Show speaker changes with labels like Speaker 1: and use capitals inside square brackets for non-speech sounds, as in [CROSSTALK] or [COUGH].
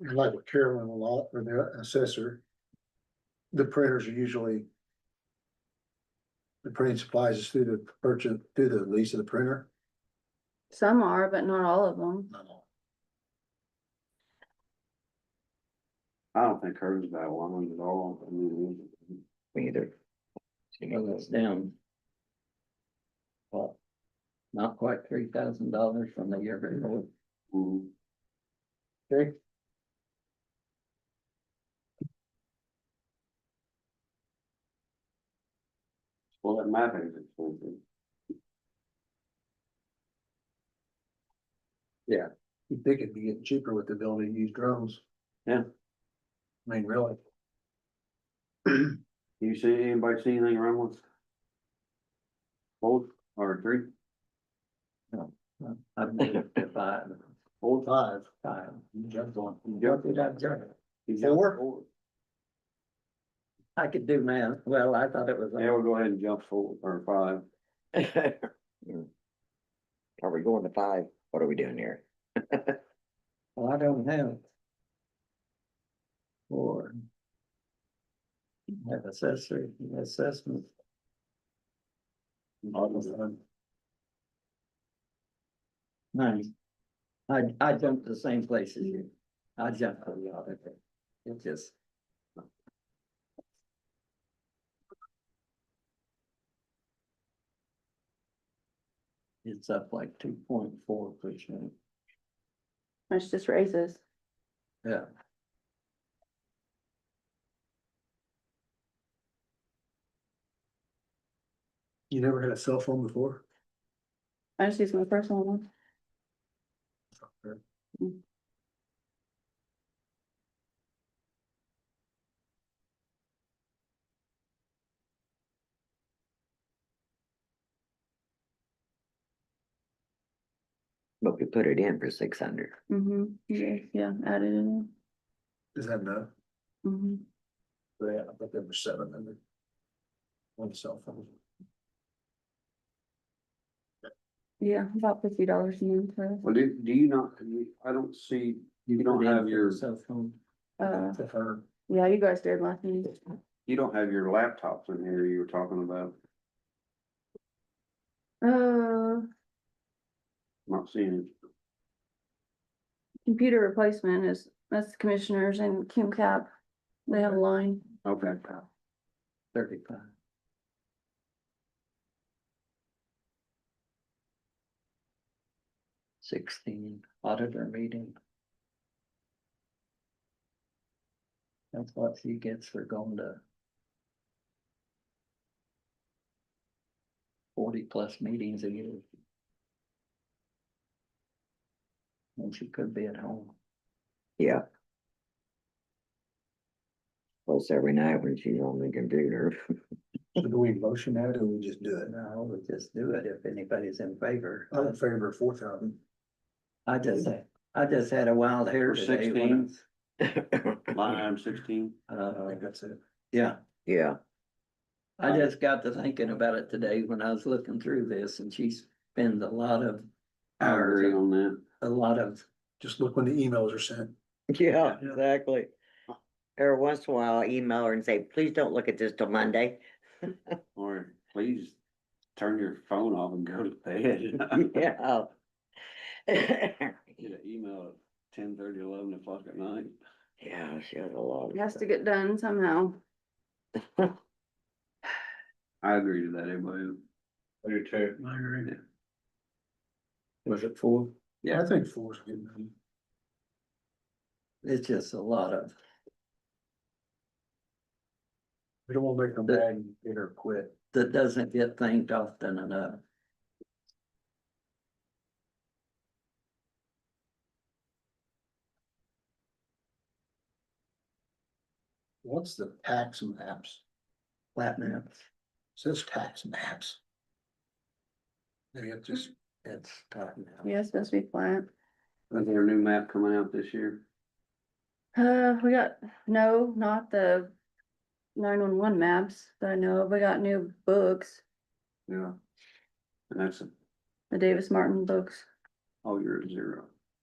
Speaker 1: like with Carolyn a lot, or the assessor. The printers are usually. The printing supplies is through the purchase, through the lease of the printer.
Speaker 2: Some are, but not all of them.
Speaker 3: I don't think hers is that one at all. I mean,
Speaker 4: Me either. You know, that's down. Well. Not quite three thousand dollars from the year before.
Speaker 3: mm,
Speaker 1: Okay.
Speaker 3: Well, that mapping is expensive.
Speaker 1: You'd think it'd be getting cheaper with the ability to use drones.
Speaker 3: Yeah.
Speaker 1: I mean, really,
Speaker 3: You see, anybody see anything wrong with? Both or three,
Speaker 4: I've moved to five,
Speaker 1: old five,
Speaker 4: five.
Speaker 1: you jumped on.
Speaker 4: What did I jump?
Speaker 3: You got
Speaker 1: Four?
Speaker 3: four.
Speaker 4: I could do math. Well, I thought it was.
Speaker 3: Yeah, we'll go ahead and jump four or five.
Speaker 5: Are we going to five? What are we doing here?
Speaker 4: Well, I don't have. Four. Have assessor, assessment. Nine. I, I jumped the same place as you. I jumped for the auditor. It just. It's up like two point four percent,
Speaker 2: It's just raises.
Speaker 4: yeah.
Speaker 1: You never had a cell phone before?
Speaker 2: I just use my personal one.
Speaker 5: But we put it in for six hundred.
Speaker 2: Mm-hmm. Yeah, yeah, added in.
Speaker 1: Is that enough?
Speaker 2: Mm-hmm.
Speaker 1: Yeah, I think there were seven hundred. One cell phone.
Speaker 2: Yeah, about fifty dollars a month for,
Speaker 3: Well, do, do you not, you- I don't see, you don't
Speaker 4: Put in
Speaker 3: have
Speaker 4: for
Speaker 3: your,
Speaker 4: Cell phone.
Speaker 2: uh,
Speaker 1: To her,
Speaker 2: yeah, you guys did last meeting.
Speaker 3: you don't have your laptops in here you were talking about.
Speaker 2: Uh,
Speaker 3: Not seeing
Speaker 2: computer replacement is, that's the commissioners and Kim Cap. They have a line.
Speaker 3: it. Okay.
Speaker 4: Thirty-five. Sixteen auditor meeting. That's what she gets for going to. Forty plus meetings a year. And she could be at home.
Speaker 5: Yeah. Plus every night when she's on the computer. [LAUGHS]
Speaker 1: So do we motion that or we just do it?
Speaker 4: And I would just do it if anybody's in favor.
Speaker 1: I'm in favor of four thousand.
Speaker 4: I just, I just had a wild hair
Speaker 3: For
Speaker 4: today. when
Speaker 3: 16? Line item sixteen,
Speaker 4: I-
Speaker 1: I don't
Speaker 4: uh,
Speaker 1: think that's it.
Speaker 4: Yeah,
Speaker 5: Yeah,
Speaker 4: I just got to thinking about it today when I was looking through this and she spends a lot of
Speaker 3: I agree
Speaker 4: hours,
Speaker 3: on that.
Speaker 4: a lot of,
Speaker 1: Just look when the emails are sent.
Speaker 5: yeah, exactly. Every once in a while, I email her and say, please don't look at this till Monday. [LAUGHS]
Speaker 3: Or please turn your phone off and go to [LAUGHS] bed.
Speaker 5: Yeah. [LAUGHS]
Speaker 3: Get an email at ten thirty, eleven o'clock at night.
Speaker 5: Yeah, she has a lot.
Speaker 2: It has to get done somehow.
Speaker 3: I agree to that, everybody.
Speaker 1: I do too. I agree.
Speaker 4: was it four?
Speaker 1: Yeah, I think four is good.
Speaker 4: It's just a lot of,
Speaker 1: We don't wanna make them
Speaker 4: The-
Speaker 1: bad and get her quit.
Speaker 4: that doesn't get thanked often enough.
Speaker 1: What's the tax maps?
Speaker 4: Platinum,
Speaker 1: Says tax maps. Maybe it just,
Speaker 4: it's platinum.
Speaker 2: Yeah, it's supposed to be flat.
Speaker 3: Is there a new map coming out this year?
Speaker 2: Uh, we got, no, not the nine-one-one maps that I know of. We got new books,
Speaker 3: Yeah. And that's, a-
Speaker 2: the Davis Martin books.
Speaker 3: oh, you're at zero.